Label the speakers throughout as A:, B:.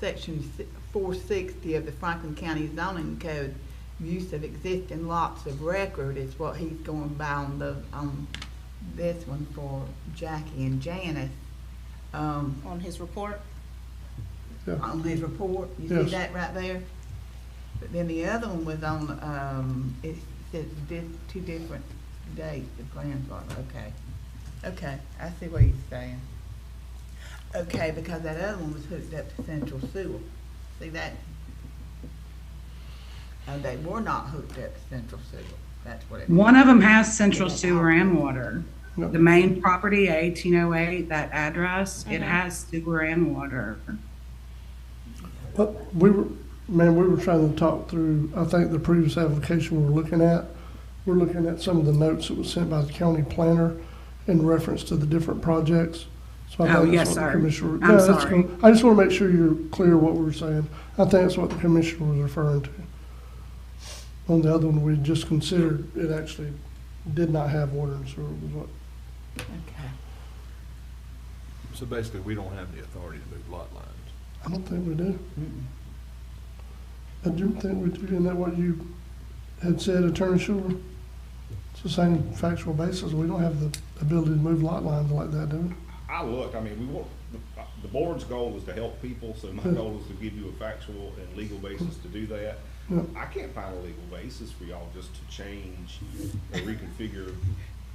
A: section four sixty of the Franklin County zoning code, use of existing lots of record is what he's going by on the, on this one for Jackie and Janice. Um,
B: on his report.
C: Yeah,
A: on his report, you see
C: Yes.
A: that right there? But then the other one was on, um, it says di- two different dates, the plans are, okay. Okay, I see what he's saying. Okay, because that other one was hooked up to central sewer, see that? And they were not hooked up to central sewer, that's what it.
D: One of them has central sewer and water.
C: Yep.
D: The main property, 1808, that address, it has sewer and water.
C: but we were, man, we were trying to talk through, I think the previous application we were looking at, we're looking at some of the notes that was sent by the county planner in reference to the different projects. So I
D: Oh,
C: think that's
D: yes,
C: what the
D: sir.
C: commissioner.
D: I'm
C: No, that's
D: sorry.
C: cool. I just want to make sure you're clear what we were saying. I think that's what the commissioner was referring to. On the other one, we just considered, it actually did not have water and sewer, was what
A: Okay.
E: So basically, we don't have the authority to move lot lines.
C: I don't think we do. I do think we do, isn't that what you had said, Attorney Schuler? It's the same factual basis, we don't have the ability to move lot lines like that, do we?
F: I look, I mean, we want, the, the board's goal is to help people, so my goal is to give you a factual and legal basis to do that.
C: Yeah.
F: I can't find a legal basis for y'all just to change or reconfigure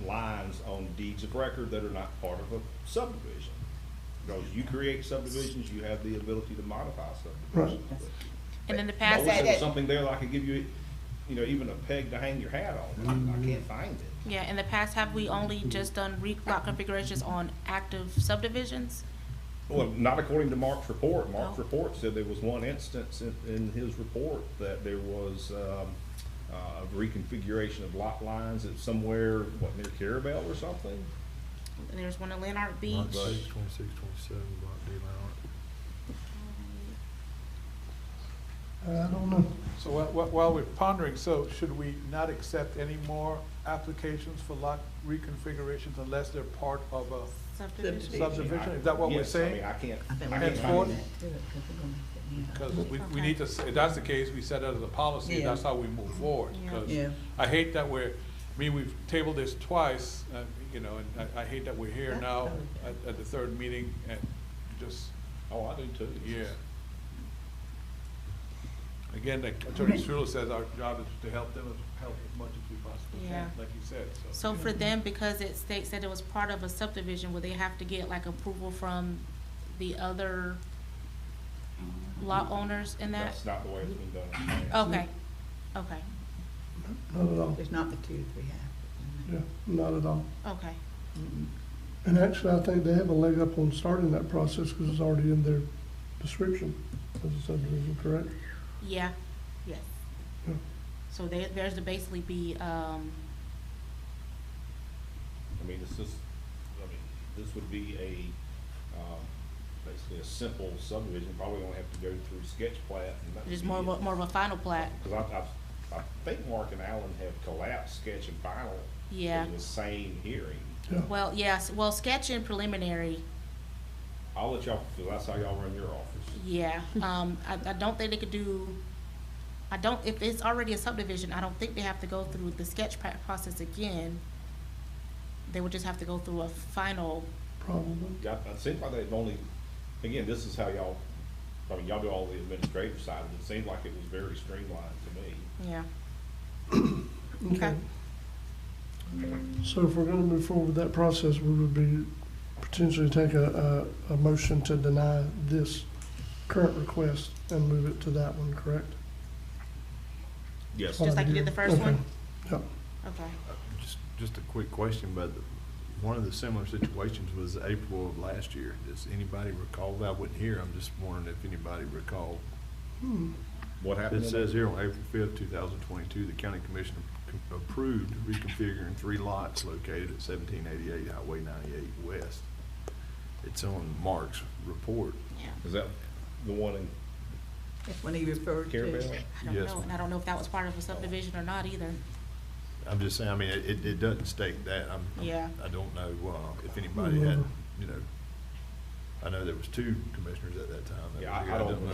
F: lines on deeds of record that are not part of a subdivision. Because you create subdivisions, you have the ability to modify subdivisions.
B: And in the
F: I
B: past,
F: wish there was something there that I could give you, you know, even a peg to hang your hat on, I can't find it.
B: yeah, in the past, have we only just done re- lot configurations on active subdivisions?
F: Well, not according to Mark's report. Mark's
B: Oh.
F: report said there was one instance in, in his report that there was, um, uh, reconfiguration of lot lines at somewhere, what, near Carabel or something?
B: And there's one in Lanark
E: Lot
B: Beach.
E: six, twenty-six, twenty-seven, lot D line.
C: I don't know.
G: So whi- whi- while we're pondering, so should we not accept any more applications for lot reconfigurations unless they're part of a
B: Subdivision.
G: subdivision? Is that what we're
F: E Yes, I mean,
G: saying?
F: I can't,
A: I think
F: I
A: we're
F: can't
G: Henceforth,
F: find
A: gonna
F: it.
A: do it, 'cause we're gonna sit down.
G: Because we, we need to, say- if that's the case, we set out as a policy,
A: Yeah.
G: that's how we move forward.
B: Yeah.
G: 'cause
A: Yeah.
G: I hate that we're, I mean, we've tabled this twice, uh, you know, and I, I hate that we're here
A: That's
G: now
A: totally fair.
G: at, at the third meeting and just,
F: Oh, I do too.
G: yeah. Again, like Attorney Schuler says, our job is to help them, as- help as much as we possibly
B: Yeah.
G: can, like you said, so.
B: So for them, because it states that it was part of a subdivision, would they have to get like approval from the other lot owners in that?
F: That's not the way it's been done. in the past.
B: Okay, okay,
C: Not at all,
A: It's not the two that we have.
C: yeah, not at all.
B: okay.
C: And actually, I think they have a leg up on starting that process because it's already in their description as a subdivision, correct?
B: Yeah, yes.
C: Yeah.
B: So there, there's to basically be, um,
F: I mean, it's just, I mean, this would be a, um, basically a simple subdivision, probably gonna have to go through sketch plat and that.
B: just
F: would
B: more of
F: be
B: a,
F: it.
B: more of a final plat,
F: Cause I, I, I think Mark and Alan have collapsed sketch and final.
B: yeah.
F: In the same hearing.
C: Yeah,
B: Well, yes, well, sketch and preliminary,
F: I'll let y'all, cause I saw y'all run your office.
B: yeah, um, I, I don't think they could do, I don't, if it's already a subdivision, I don't think they have to go through the sketch pra- process again. They would just have to go through a final,
C: probably.
F: Got, it seems like they've only, again, this is how y'all, I mean, y'all do all the administrative side, but it seemed like it was very streamlined to me.
B: yeah,
C: Okay. So if we're gonna move forward with that process, we would be potentially take a, a, a motion to deny this current request and move it to that one, correct?
F: Yes.
B: Just like you did the first
C: Okay.
B: one?
C: Yep,
B: okay.
E: Just, just a quick question, but one of the similar situations was April of last year. Does anybody recall that? I wasn't here. I'm just wondering if anybody recalled.
F: What happened?
E: It says here on April fifth, two thousand twenty-two, the county commission co- approved reconfiguring three lots located at seventeen eighty-eight Highway ninety-eight west. It's on Mark's report.
F: Is that the one in
A: That's when he referred to.
F: Carabel?
B: I don't
E: Yes,
B: know, and I don't know if that was part of a subdivision or not either,
E: I'm just saying, I mean, it, it- it doesn't state that. I'm, I'm-
B: Yeah.
E: I don't know, uh, if anybody had, you know, I know there was two commissioners at that time. that
F: Yeah,
E: were
F: I-
E: here.
F: I don't